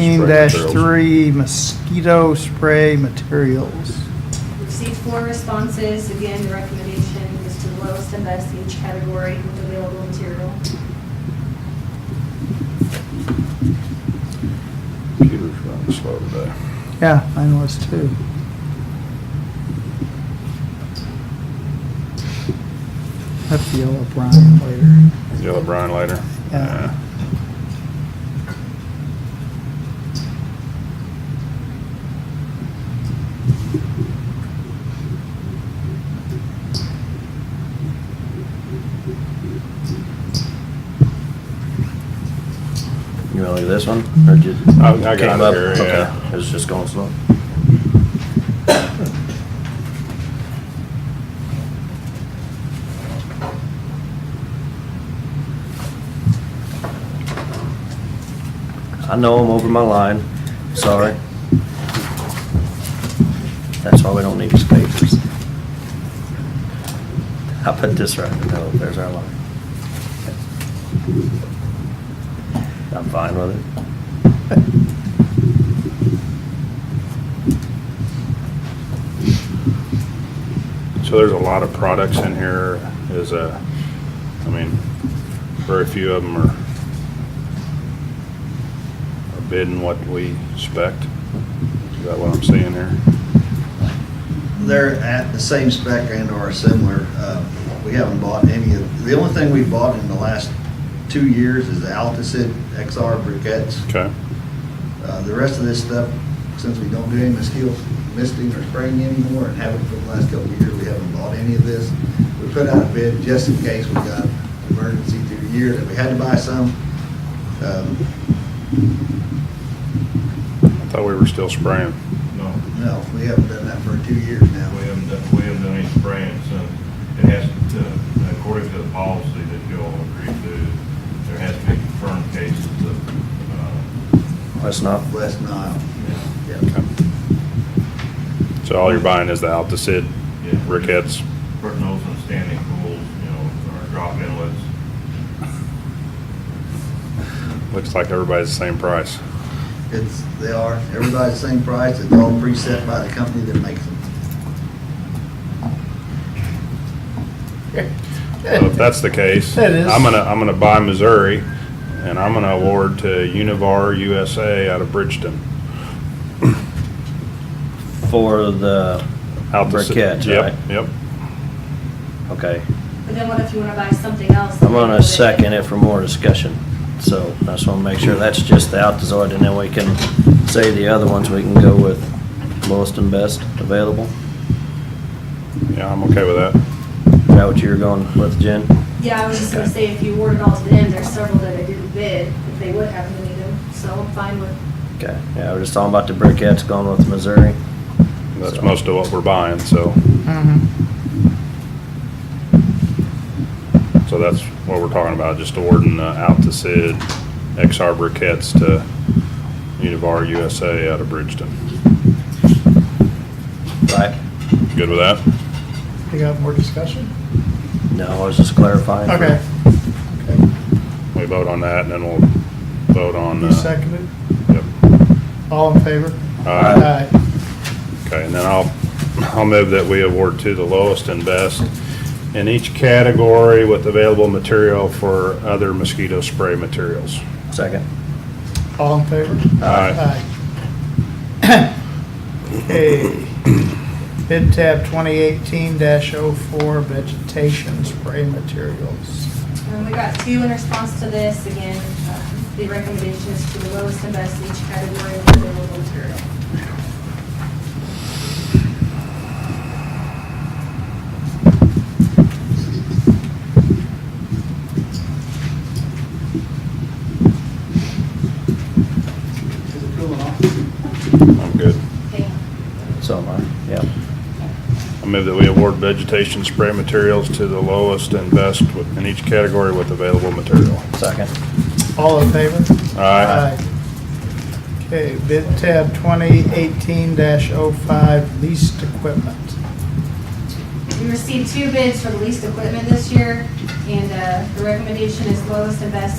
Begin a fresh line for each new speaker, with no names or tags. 2018-3 mosquito spray materials.
Received four responses. Again, the recommendation is to the lowest and best in each category with available material.
Computer's running slow today.
Yeah, mine was too. Have to yell at Brian later.
Yell at Brian later?
Yeah.
You want to leave this one, or just?
Oh, I- I got
came
it
up?
here,
Okay,
yeah.
It was just going slow. I know I'm over my line, sorry. That's why we don't need these papers. I put this right in the middle, there's our line. I'm fine with it.
So there's a lot of products in here, is a, I mean, very few of them are are bidding what we expect. Is that what I'm seeing here?
They're at the same spec and or similar. Uh, We haven't bought any of, the only thing we bought in the last two years is the Altisid XR briquettes.
Okay,
Uh, The rest of this stuff, since we don't do any mosquito misting or spraying anymore and haven't for the last couple of years, we haven't bought any of this. We put out a bid just in case we got an emergency through the year that we had to buy some. Um,
I thought we were still spraying.
No,
No, we haven't done that for two years now.
we haven't done, we haven't done any spraying, so uh, it has to, uh, according to the policy that you all agreed to, there has to be confirmed cases of, uh,
That's not,
West Nile. Yeah.
Okay. So all you're buying is the Alticid,
Yeah.
briquettes,
Brittenells and standing pools, you know, or drop inlets.
looks like everybody's the same price.
It's, they are, everybody's the same price, it's all preset by the company that makes them.
So if that's the case,
It is.
I'm gonna, I'm gonna buy Missouri, and I'm gonna award to Univar USA out of Bridgeton.
For the
Altus-
briquettes, right?
Yep, yep.
Okay.
But then what if you want to buy something else?
I'm gonna second it for more discussion. So I just wanna make sure that's just the Altazoid, and then we can say the other ones, we can go with lowest and best available.
Yeah, I'm okay with that.
Is that what you were going with, Jen?
Yeah, I was just gonna say, if you award it all to them, there's several that I didn't bid, if they would have any of them, so I'm fine with,
Okay, yeah, we're just talking about the briquettes going with Missouri.
That's
So-
most of what we're buying, so,
Mm-hmm.
so that's what we're talking about, just awarding uh, Alticid XR briquettes to Univar USA out of Bridgeton.
Right?
Good with that?
You got more discussion?
No, I was just clarifying. for-
Okay.
We vote on that, and then we'll vote on.
You
uh,
seconded?
Yep.
All in favor?
Aye. Okay, and then I'll, I'll move that we award to the lowest and best in each category with available material for other mosquito spray materials.
Second.
All in favor?
Aye.
Okay. Bid tab 2018-04 vegetation spray materials.
um, we got two in response to this, again, uh, the recommendation is to the lowest and best in each category with available material.
Is it cooling off?
I'm good.
Okay.
So am I, yeah.
I move that we award vegetation spray materials to the lowest and best with- in each category with available material.
Second.
All in favor?
Aye.
Okay, bid tab 2018-05 leased equipment.
We received two bids for the leased equipment this year, and uh, the recommendation is lowest and best